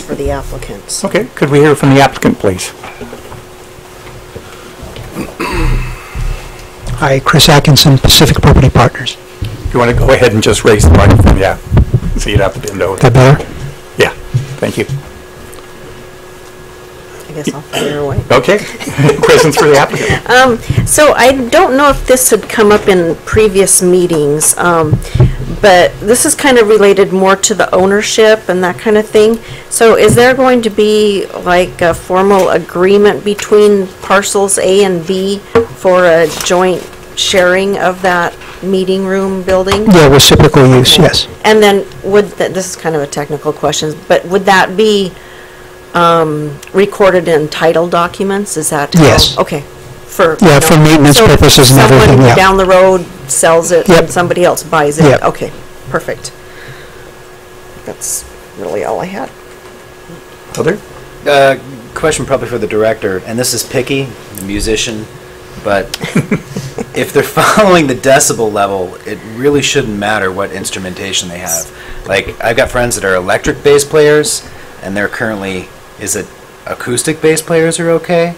for the applicants. Okay, could we hear from the applicant, please? Hi, Chris Atkinson, Pacific Property Partners. Do you want to go ahead and just raise the microphone? Yeah, so you'd have to bend over. That better? Yeah, thank you. I guess I'll fire away. Okay, questions for the applicant? So I don't know if this had come up in previous meetings, um, but this is kind of related more to the ownership and that kind of thing. So is there going to be like a formal agreement between parcels A and B for a joint sharing of that meeting room building? Yeah, reciprocal use, yes. And then would, th- this is kind of a technical question, but would that be um, recorded in title documents? Is that? how- Yes. Okay. For. Yeah, for maintenance So if purposes and everything, yeah. Someone down the road sells it and Yep. somebody else buys it? Yep. Okay, perfect. That's really all I had. Other? Uh, question probably for the director, and this is picky, the musician, but if they're following the decibel level, it really shouldn't matter what instrumentation they have. Like, I've got friends that are electric bass players, and they're currently, is it acoustic bass players are okay?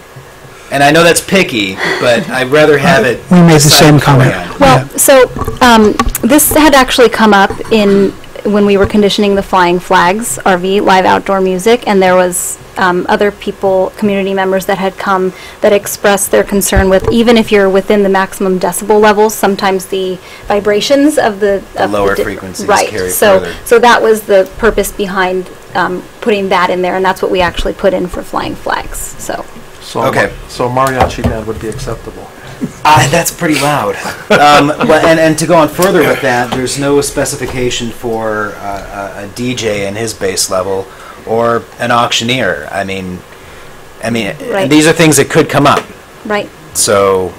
And I know that's picky, but I'd rather have it. We made the same comment. Yeah. Well, Well, so, um, this had actually come up in, when we were conditioning the Flying Flags RV, live outdoor music, and there was, um, other people, community members that had come that expressed their concern with, even if you're within the maximum decibel levels, sometimes the vibrations of the. The of lower di- frequencies carry Right, so, further. so that was the purpose behind, um, putting that in there, and that's what we actually put in for Flying Flags, so. So, Okay. so a mariachi band would be acceptable. Ah, that's pretty loud. um, well, and, and to go on further with that, there's no specification for uh, a a DJ and his bass level or an auctioneer. I mean, I mean, Right. these are things that could come up. Right. So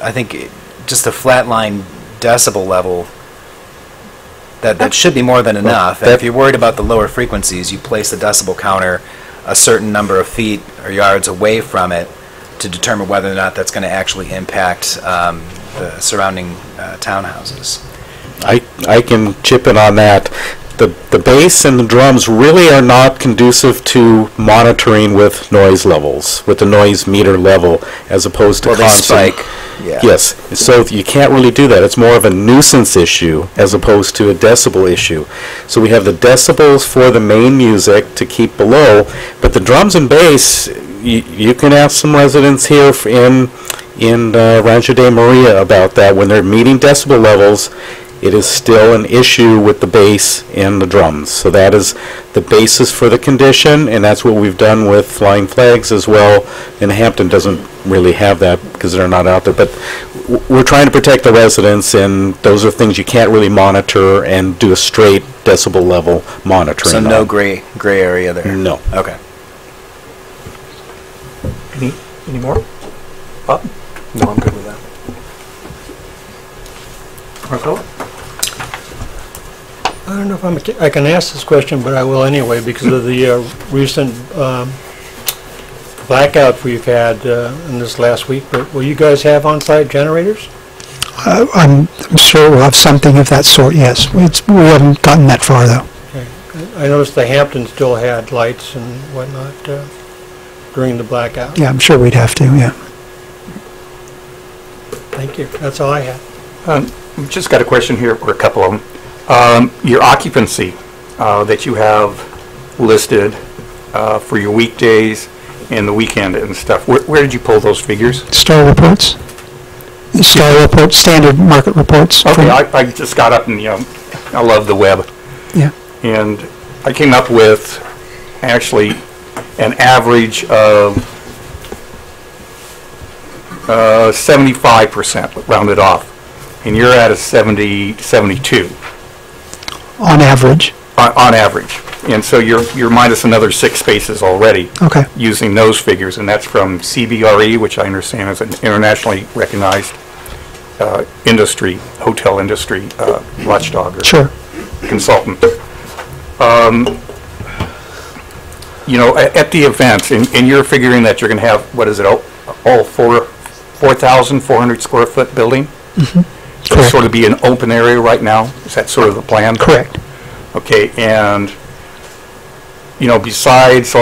I think it- just a flatline decibel level, that, that should be more than enough. And if you're worried about the lower frequencies, you place the decibel counter a certain number of feet or yards away from it to determine whether or not that's going to actually impact um, the surrounding uh, townhouses. I, I can chip in on that. The, the bass and the drums really are not conducive to monitoring with noise levels, with the noise meter level, as opposed to Well, they constant. spike, yeah. Yes, so you can't really do that. It's more of a nuisance issue as opposed to a decibel issue. So we have the decibels for the main music to keep below, but the drums and bass, you, you can ask some residents here f- in, in uh, Rancho de Maria about that. When they're meeting decibel levels, it is still an issue with the bass and the drums. So that is the basis for the condition, and that's what we've done with Flying Flags as well. And Hampton doesn't really have that because they're not out there. But w- we're trying to protect the residents, and those are things you can't really monitor and do a straight decibel level monitoring. So no on. gray, gray area there? No. Okay. Any, any more? Bob? No, I'm good with that. Marcelo? I don't know if I'm, a ca- I can ask this question, but I will anyway, because of the uh, recent um, blackout we've had uh, in this last week. But will you guys have on-site generators? Uh, I'm I'm sure we'll have something of that sort, yes. It's- We haven't gotten that far, though. I noticed the Hampton still had lights and whatnot uh, during the blackout. Yeah, I'm sure we'd have to, yeah. Thank you. That's all I had. We've Just got a question here, or a couple of them. Um, Your occupancy uh, that you have listed uh, for your weekdays and the weekend and stuff, where- where did you pull those figures? Star reports? Star reports, standard market reports. Okay, from- I I just got up and, you know, I love the web. Yeah, And I came up with actually an average of uh, 75% rounded off. And you're at a 70, 72 on average. on, on average. And so you're, you're minus another six spaces already. Okay. Using those figures, and that's from CBRE, E, which I understand is an internationally recognized uh, industry, hotel industry uh, watchdog or Sure. consultant. Um, You know, a- at the event, and and you're figuring that you're going to have, what is it, all all four, 4,400 square foot building? So Correct. Sort of be an open area right now? Is that sort of the plan? Correct. Okay, and you know, besides